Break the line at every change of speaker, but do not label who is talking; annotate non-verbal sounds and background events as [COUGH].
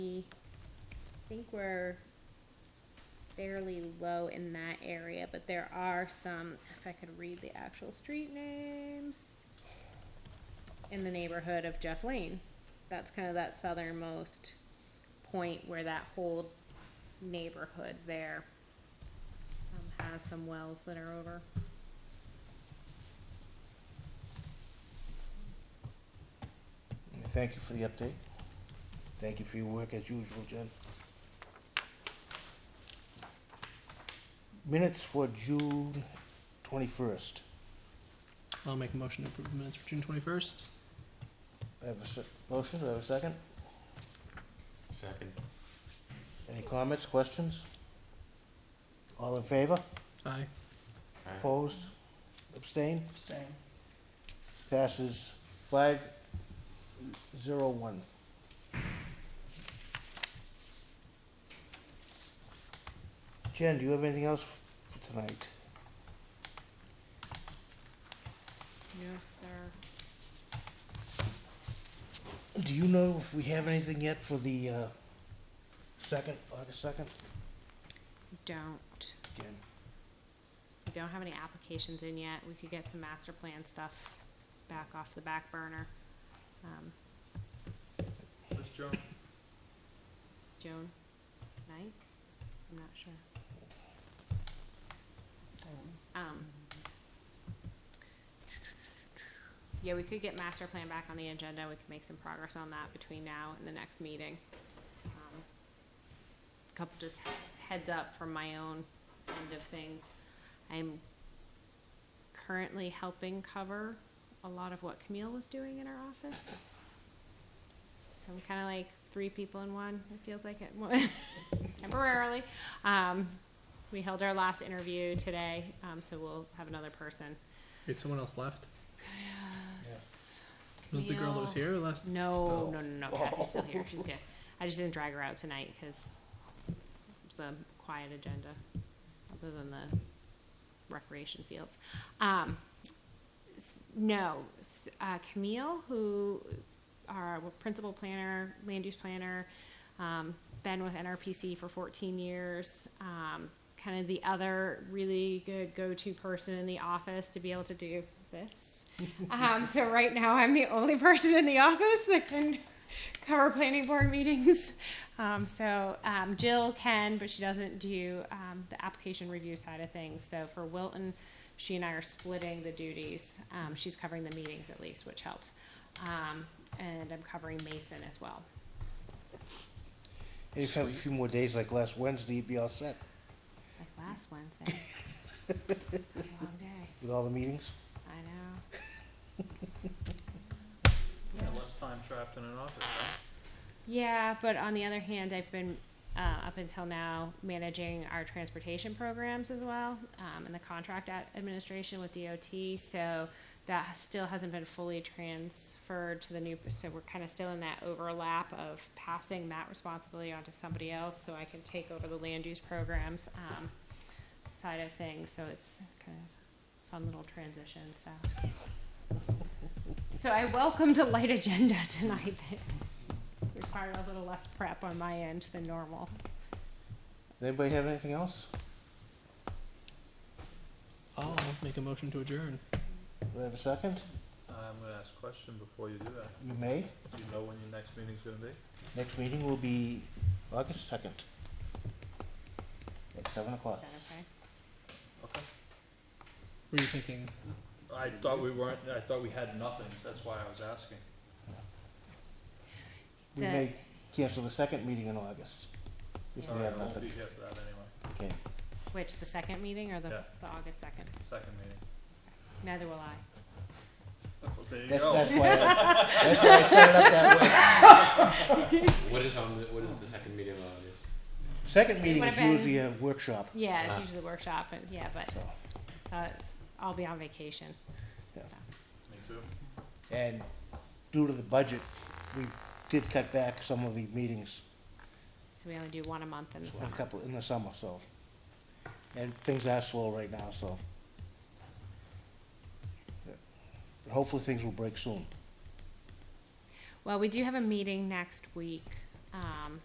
think we're fairly low in that area, but there are some, if I could read the actual street names, in the neighborhood of Jeff Lane. That's kind of that southernmost point where that whole neighborhood there um, has some wells that are over.
Thank you for the update. Thank you for your work as usual, Jen. Minutes for June twenty-first.
I'll make a motion to approve the minutes for June twenty-first.
I have a se- motion, do I have a second?
Second.
Any comments, questions? All in favor?
Aye.
Aye.
Opposed? Abstained?
Staying.
Passes five zero one. Jen, do you have anything else for tonight?
No, sir.
Do you know if we have anything yet for the, uh, second, August second?
Don't.
Jen,
We don't have any applications in yet. We could get some master plan stuff back off the back burner. Um,
Let's jump.
June ninth? I'm not sure. Um. Yeah, we could get master plan back on the agenda. We could make some progress on that between now and the next meeting. Um, Couple just heads up from my own end of things. I'm currently helping cover a lot of what Camille was doing in our office. So I'm kind of like three people in one. It feels like it [LAUGHS] temporarily. Um, we held our last interview today, um, so we'll have another person.
Wait, someone else left?
Yes.
Was it the girl that was here last?
No, no, no, no. Cassie's still here. She's good. I just didn't drag her out tonight because it's a quiet agenda, other than the recreation fields. Um, s- no, s- uh, Camille, who our principal planner, land use planner, um, been with NRPC for 14 years. Um, kind of the other really good go-to person in the office to be able to do this. um, so right now, I'm the only person in the office that can cover planning board meetings. Um, so um, Jill can, but she doesn't do um, the application review side of things. So for Wilton, she and I are splitting the duties. Um, she's covering the meetings at least, which helps. Um, and I'm covering Mason as well.
if you have a few more days like last Wednesday, you'd be all set
Like last Wednesday. It's a long day.
with all the meetings.
I know.
[LAUGHS] Less time trapped in an office,
Yeah, but on the other hand, I've been uh, up until now managing our transportation programs as well um, and the contract ad- administration with DOT. So that has- still hasn't been fully transferred to the new. So we're kind of still in that overlap of passing that responsibility onto somebody else so I can take over the land use programs um, side of things. So it's kind of fun little transition. So. So I welcomed a light agenda [LAUGHS] tonight that required a little less prep on my end than normal.
Does anybody have anything else?
I'll make a motion to adjourn.
Do I have a second?
I'm gonna ask a question before you do that.
You may.
Do you know when your next meeting's gonna be?
Next meeting will be August second. At seven
Is
o'clock.
that okay?
Okay.
Were you thinking?
I thought we weren't, I thought we had nothing, so that's why I was asking.
We
The-
may cancel the second meeting in August. If we
Sorry, I
have
won't be
nothing.
here for that anyway.
Okay.
Which, the second meeting or the,
Yeah.
the August second?
Second meeting.
Neither will I.
Well, there you
That's,
go.
that's why, I- that's why I set it up that way.
What is on the, what is the second meeting of August?
Second meeting
would've
is
been-
usually a workshop,
Yeah, it's
Ah.
usually the workshop, and, yeah, but,
so,
uh, it's, I'll be on vacation.
Yeah.
so.
Me too.
and due to the budget, we did cut back some of the meetings,
So we only do one a month in the
a
summer.
couple, in the summer, so. And things are slow right now, so. But Hopefully, things will break soon.
Well, we do have a meeting next week, um,